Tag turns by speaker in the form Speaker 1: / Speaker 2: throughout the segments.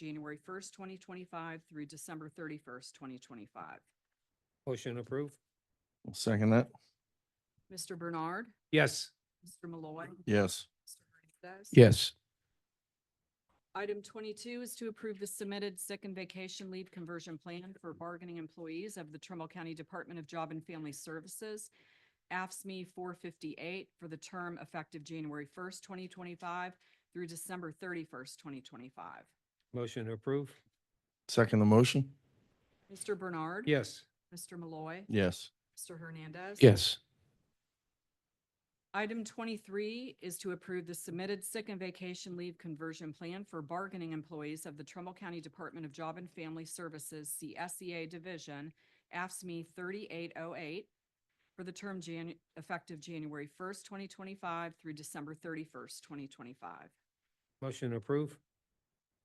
Speaker 1: January first, twenty twenty-five through December thirty-first, twenty twenty-five.
Speaker 2: Motion approved?
Speaker 3: I'll second that.
Speaker 1: Mr. Bernard,
Speaker 2: Yes.
Speaker 1: Mr. Malloy.
Speaker 3: Yes.
Speaker 1: Mr. Hernandez.
Speaker 2: Yes.
Speaker 1: Item twenty-two is to approve the submitted sick and vacation leave conversion plan for bargaining employees of the Trumbull County Department of Job and Family Services, AFSME E four fifty-eight, for the term effective January first, twenty twenty-five through December thirty-first, twenty twenty-five.
Speaker 2: Motion approved?
Speaker 3: Second the motion?
Speaker 1: Mr. Bernard.
Speaker 2: Yes.
Speaker 1: Mr. Malloy.
Speaker 3: Yes.
Speaker 1: Mr. Hernandez.
Speaker 2: Yes.
Speaker 1: Item twenty-three is to approve the submitted sick and vacation leave conversion plan for bargaining employees of the Trumbull County Department of Job and Family Services, CSEA Division, AFSME thirty-eight oh eight, for the term Jan, effective January first, twenty twenty-five through December thirty-first, twenty twenty-five.
Speaker 2: Motion approved?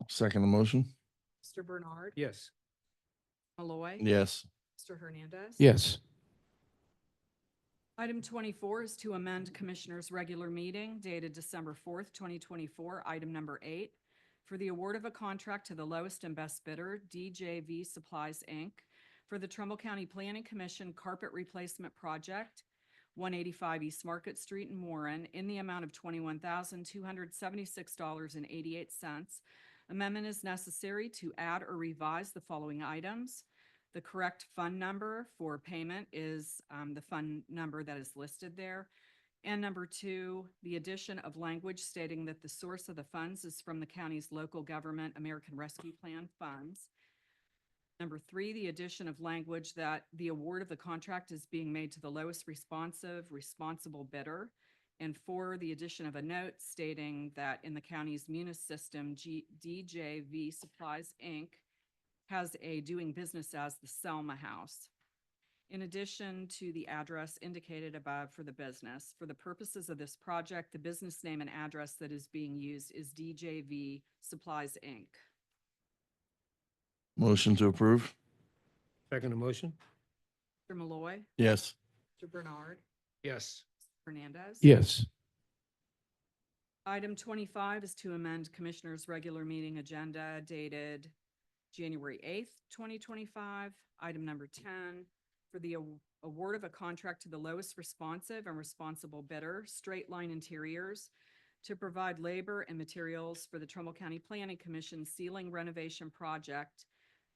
Speaker 3: I'll Second the motion?
Speaker 1: Mr. Bernard.
Speaker 2: Yes.
Speaker 1: Malloy.
Speaker 3: Yes.
Speaker 1: Mr. Hernandez.
Speaker 2: Yes.
Speaker 1: Item twenty-four is to amend Commissioners' regular meeting dated December fourth, twenty twenty-four, item number eight, for the award of a contract to the lowest and best bidder, DJV Supplies, Inc., for the Trumbull County Planning Commission Carpet Replacement Project, one eighty-five East Market Street in Warren, in the amount of twenty-one thousand, two hundred seventy-six dollars and eighty-eight cents. Amendment is necessary to add or revise the following items. The correct fund number for payment is um, the fund number that is listed there. And number two, the addition of language stating that the source of the funds is from the county's local government American Rescue Plan funds. Number three, the addition of language that the award of the contract is being made to the lowest responsive, responsible bidder. And four, the addition of a note stating that in the county's Munis system, G- DJV Supplies, Inc has a doing business as the Selma House. In addition to the address indicated above for the business, for the purposes of this project, the business name and address that is being used is DJV Supplies, Inc.
Speaker 3: Motion to approve?
Speaker 2: Second motion?
Speaker 1: Mr. Malloy.
Speaker 3: Yes.
Speaker 1: Mr. Bernard.
Speaker 2: Yes.
Speaker 1: Hernandez.
Speaker 2: Yes.
Speaker 1: Item twenty-five is to amend Commissioners' regular meeting agenda dated January eighth, twenty twenty-five. Item number ten, for the aw- award of a contract to the lowest responsive and responsible bidder, Straight Line Interiors, to provide labor and materials for the Trumbull County Planning Commission ceiling renovation project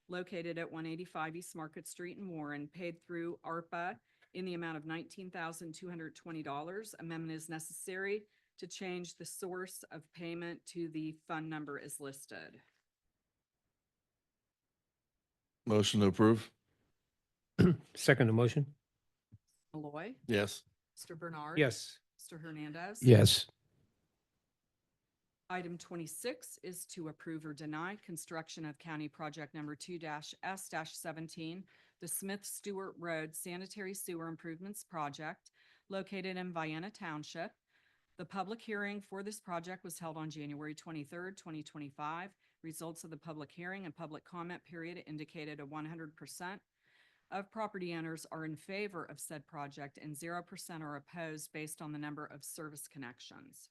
Speaker 1: located at one eighty-five East Market Street in Warren, paid through ARPA in the amount of nineteen thousand two hundred twenty dollars. Amendment is necessary to change the source of payment to the fund number is listed.
Speaker 3: Motion to approve?
Speaker 2: Second motion?
Speaker 1: Malloy,
Speaker 3: Yes.
Speaker 1: Mr. Bernard.
Speaker 2: Yes.
Speaker 1: Mr. Hernandez.
Speaker 2: Yes.
Speaker 1: Item twenty-six is to approve or deny construction of county project number two S seventeen, the Smith Stewart Road Sanitary Sewer Improvements Project located in Vienna Township. The public hearing for this project was held on January twenty-third, twenty twenty-five. Results of the public hearing and public comment period indicated a one hundred percent of property owners are in favor of said project and zero percent are opposed based on the number of service connections.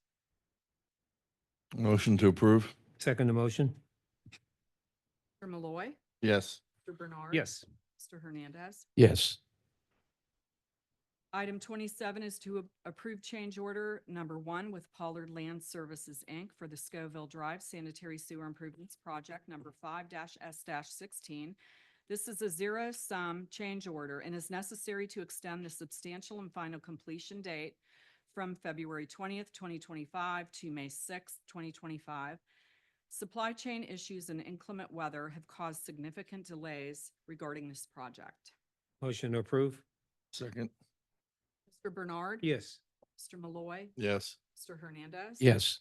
Speaker 3: Motion to approve?
Speaker 2: Second motion?
Speaker 1: Mr. Malloy.
Speaker 3: Yes.
Speaker 1: Mr. Bernard.
Speaker 2: Yes.
Speaker 1: Mr. Hernandez.
Speaker 2: Yes.
Speaker 1: Item twenty-seven is to a- approve change order number one with Pollard Land Services, Inc. for the Scoville Drive Sanitary Sewer Improvements Project number five S sixteen. This is a zero-sum change order and is necessary to extend the substantial and final completion date from February twentieth, twenty twenty-five to May sixth, twenty twenty-five. Supply chain issues and inclement weather have caused significant delays regarding this project.
Speaker 2: Motion approved?
Speaker 3: Second?
Speaker 1: Mr. Bernard.
Speaker 2: Yes.
Speaker 1: Mr. Malloy.
Speaker 3: Yes.
Speaker 1: Mr. Hernandez.
Speaker 2: Yes.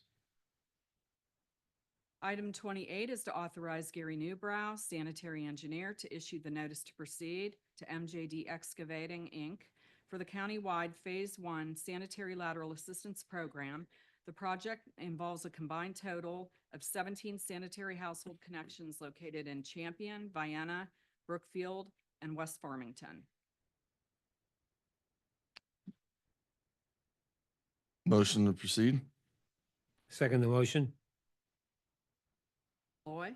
Speaker 1: Item twenty-eight is to authorize Gary Newbrow, sanitary engineer, to issue the notice to proceed to MJD Excavating, Inc. for the countywide Phase One Sanitary Lateral Assistance Program. The project involves a combined total of seventeen sanitary household connections located in Champion, Vienna, Brookfield, and West Farmington.
Speaker 3: Motion to proceed?
Speaker 2: Second motion?
Speaker 1: Malloy.